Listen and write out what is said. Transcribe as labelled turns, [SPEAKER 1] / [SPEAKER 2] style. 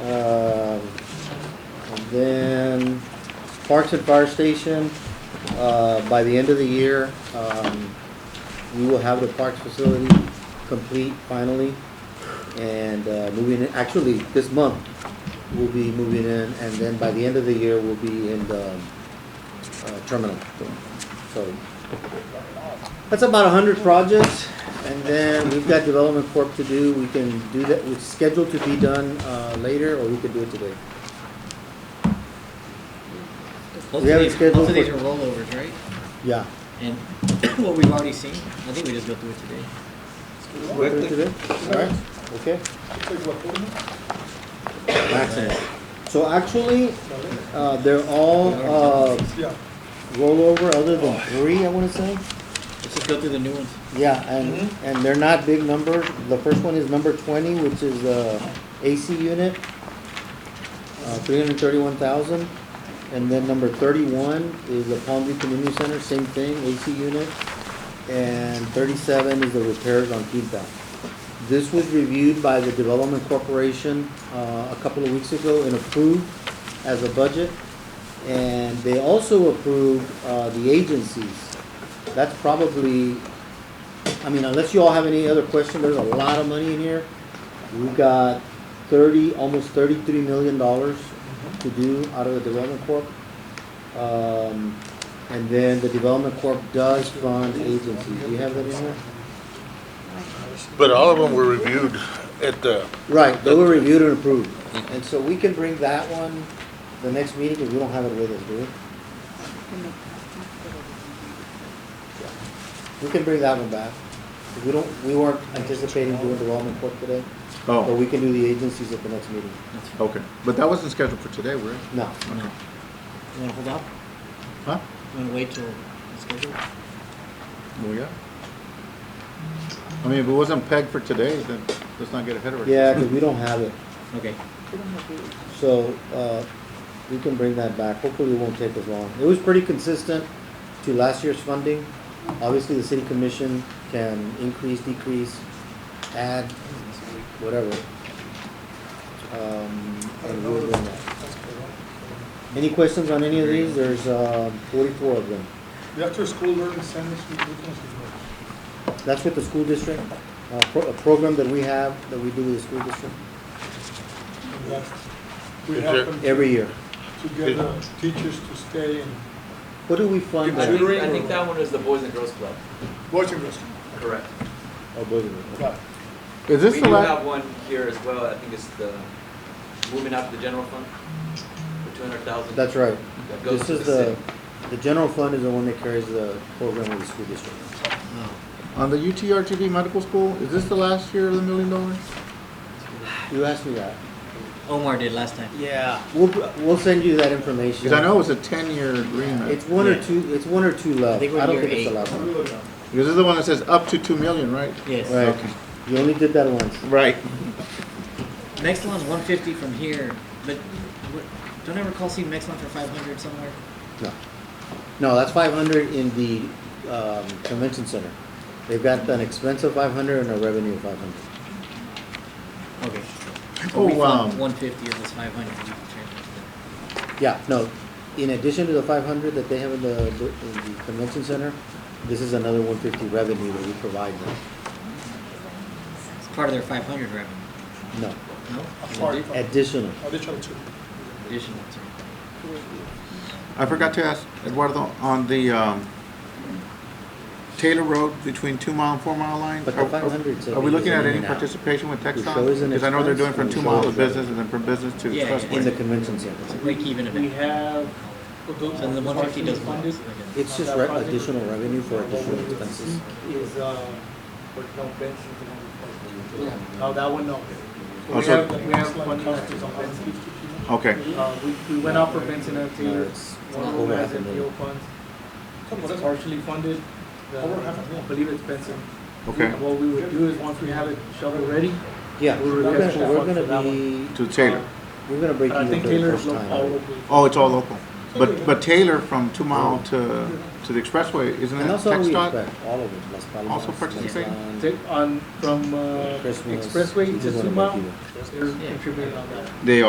[SPEAKER 1] Um, Parks at Fire Station, uh, by the end of the year, um, we will have the parks facility complete finally. And uh, moving, in actually, this month, we'll be moving in, and then by the end of the year, we'll be in the um, uh, terminal. So, that's about hundred projects, and then we've got development corp to do, we can do that, it's scheduled to be done, uh, later, or we could do it today.
[SPEAKER 2] Both
[SPEAKER 1] We have
[SPEAKER 2] of
[SPEAKER 1] it
[SPEAKER 2] these,
[SPEAKER 1] scheduled
[SPEAKER 2] both of these
[SPEAKER 1] for-
[SPEAKER 2] are rollovers, right?
[SPEAKER 1] Yeah.
[SPEAKER 2] And what we've already seen, I think we just go through it today.
[SPEAKER 1] We'll do it today, alright, okay, maximum. So actually, uh, they're all, uh,
[SPEAKER 3] Yeah.
[SPEAKER 1] rollover, other than three, I wanna say.
[SPEAKER 2] Let's just go through the new ones.
[SPEAKER 1] Yeah, and, and they're not big numbers. The first one is number twenty, which is the AC unit, uh, three hundred thirty-one thousand. And then number thirty-one is the Palm View Community Center, same thing, AC unit. And thirty-seven is the repairs on Quinta. This was reviewed by the Development Corporation, uh, a couple of weeks ago and approved as a budget. And they also approved, uh, the agencies. That's probably, I mean, unless you all have any other question, there's a lot of money in here. We've got thirty, almost thirty-three million dollars to do out of the development corp. Um, and then the development corp does fund agencies. Do you have that in there?
[SPEAKER 4] But all of them were reviewed at the,
[SPEAKER 1] Right, they were reviewed and approved. And so we can bring that one the next meeting, because we don't have it with us, do we? We can bring that one back. We don't, we weren't anticipating doing development corp today, but
[SPEAKER 5] Oh,
[SPEAKER 1] we can do the agencies at the next meeting.
[SPEAKER 5] okay. But that wasn't scheduled for today, were it?
[SPEAKER 1] No.
[SPEAKER 2] You wanna you wanna hold up?
[SPEAKER 5] Huh?
[SPEAKER 2] You wanna wait till it's scheduled?
[SPEAKER 5] Well, yeah. I mean, if it wasn't pegged for today, then let's not get ahead of ourselves.
[SPEAKER 1] Yeah, because we don't have it.
[SPEAKER 2] Okay.
[SPEAKER 1] So, uh, we can bring that back. Hopefully it won't take as long. It was pretty consistent to last year's funding. Obviously, the city commission can increase, decrease, add, whatever. Um, and we'll bring that. Any questions on any of these? There's, uh, forty-four of them.
[SPEAKER 3] The after-school learning centers, we we can see.
[SPEAKER 1] That's with the school district, uh, pro- a program that we have, that we do with the school district
[SPEAKER 3] That We
[SPEAKER 4] Is
[SPEAKER 3] help
[SPEAKER 4] there-
[SPEAKER 3] them to
[SPEAKER 1] every year.
[SPEAKER 3] get uh, teachers to stay in
[SPEAKER 1] What do we fund?
[SPEAKER 6] I think,
[SPEAKER 1] there?
[SPEAKER 6] I think that one is the Boys and Girls Club.
[SPEAKER 3] watching us.
[SPEAKER 6] Correct.
[SPEAKER 1] Oh, both of them.
[SPEAKER 3] Yeah.
[SPEAKER 5] Is
[SPEAKER 6] We
[SPEAKER 5] this
[SPEAKER 6] do
[SPEAKER 5] the last?
[SPEAKER 6] have one here as well, I think it's the, moving out to the general fund for two hundred thousand.
[SPEAKER 1] That's right.
[SPEAKER 6] That goes
[SPEAKER 1] This
[SPEAKER 6] to
[SPEAKER 1] is
[SPEAKER 6] the
[SPEAKER 1] the,
[SPEAKER 6] city.
[SPEAKER 1] the general fund is the one that carries the program with the school district.
[SPEAKER 2] Oh.
[SPEAKER 5] On the UTRGV Medical School, is this the last year of the million dollars?
[SPEAKER 1] You asked me that.
[SPEAKER 2] Omar did last time.
[SPEAKER 1] Yeah. We'll, we'll send you that information.
[SPEAKER 5] Because I know it was a ten-year agreement.
[SPEAKER 1] It's one or
[SPEAKER 2] Yeah.
[SPEAKER 1] two, it's one or two left.
[SPEAKER 2] think we're
[SPEAKER 1] I don't
[SPEAKER 2] near
[SPEAKER 1] think it's the
[SPEAKER 2] eight.
[SPEAKER 1] last one.
[SPEAKER 3] um,
[SPEAKER 5] Because this is the one that says up to two million, right?
[SPEAKER 2] Yes.
[SPEAKER 1] Right.
[SPEAKER 5] Okay.
[SPEAKER 1] You only did that once.
[SPEAKER 5] Right.
[SPEAKER 2] Next one's one fifty from here, but what- don't I recall seeing next one for five hundred somewhere?
[SPEAKER 1] No. No, that's five hundred in the, um, convention center. They've got an expense of five hundred and a revenue of five hundred.
[SPEAKER 2] Okay.
[SPEAKER 5] Oh, wow.
[SPEAKER 1] um,
[SPEAKER 2] One fifty of this five hundred.
[SPEAKER 1] Yeah, no, in addition to the five hundred that they have in the, in the convention center, this is another one fifty revenue that we provide them.
[SPEAKER 2] It's part of their five hundred revenue.
[SPEAKER 1] No,
[SPEAKER 2] No?
[SPEAKER 3] sorry.
[SPEAKER 1] additional.
[SPEAKER 3] Additional two.
[SPEAKER 2] Additional to.
[SPEAKER 5] I forgot to ask Eduardo, on the, um, Taylor Road between two mile and four mile lines?
[SPEAKER 1] But the
[SPEAKER 5] are- are-
[SPEAKER 1] 500 's a
[SPEAKER 5] Are we
[SPEAKER 1] big
[SPEAKER 5] looking at
[SPEAKER 1] in
[SPEAKER 5] any
[SPEAKER 1] and out.
[SPEAKER 5] participation with Texas?
[SPEAKER 1] show is an
[SPEAKER 5] Because I know they're doing
[SPEAKER 1] expense, and
[SPEAKER 5] from
[SPEAKER 1] the
[SPEAKER 5] two
[SPEAKER 1] show
[SPEAKER 5] mile to
[SPEAKER 1] is revenue.
[SPEAKER 5] business and then from business to
[SPEAKER 2] Yeah, yeah,
[SPEAKER 1] In the
[SPEAKER 5] expressway.
[SPEAKER 1] convention center.
[SPEAKER 2] Break even
[SPEAKER 7] We
[SPEAKER 2] event.
[SPEAKER 7] have.
[SPEAKER 2] So the one fifty doesn't. matter.
[SPEAKER 1] It's just re- additional revenue for additional expenses.
[SPEAKER 7] Is, uh, no, Oh, that one, no. So We
[SPEAKER 5] Also-
[SPEAKER 7] have, we have one that is on Benson.
[SPEAKER 5] Okay.
[SPEAKER 7] Uh, we, we went out for Benson
[SPEAKER 1] No,
[SPEAKER 7] until
[SPEAKER 1] it's
[SPEAKER 7] one of
[SPEAKER 1] over
[SPEAKER 7] them
[SPEAKER 1] half
[SPEAKER 7] has
[SPEAKER 1] a
[SPEAKER 7] NPO
[SPEAKER 1] million.
[SPEAKER 7] funds.
[SPEAKER 3] Come on,
[SPEAKER 7] It's
[SPEAKER 3] that's
[SPEAKER 7] partially funded. The-
[SPEAKER 3] Over half a million.
[SPEAKER 7] I believe it's Benson.
[SPEAKER 5] Okay.
[SPEAKER 7] What we would do is, once we have it shovel ready,
[SPEAKER 1] Yeah, we're
[SPEAKER 7] We're
[SPEAKER 1] gonna,
[SPEAKER 7] responsible
[SPEAKER 1] we're
[SPEAKER 7] for
[SPEAKER 1] gonna
[SPEAKER 7] that
[SPEAKER 1] be,
[SPEAKER 5] To Taylor.
[SPEAKER 1] we're gonna break
[SPEAKER 7] but I
[SPEAKER 1] even
[SPEAKER 7] think
[SPEAKER 1] for the
[SPEAKER 7] Taylor
[SPEAKER 1] first
[SPEAKER 7] is all
[SPEAKER 1] time.
[SPEAKER 7] local.
[SPEAKER 5] Oh, it's all local. But, but Taylor from two mile to, to the expressway, isn't
[SPEAKER 1] And
[SPEAKER 5] that
[SPEAKER 1] that's all we
[SPEAKER 5] Texas?
[SPEAKER 1] expect, all of it, Las Palmas.
[SPEAKER 5] also participating?
[SPEAKER 1] Mazatlan,
[SPEAKER 7] Take on, from, uh,
[SPEAKER 1] Christmas, we
[SPEAKER 7] expressway to
[SPEAKER 1] just wanna break
[SPEAKER 7] Suma,
[SPEAKER 1] even.
[SPEAKER 7] they're contributing on that.
[SPEAKER 5] They are.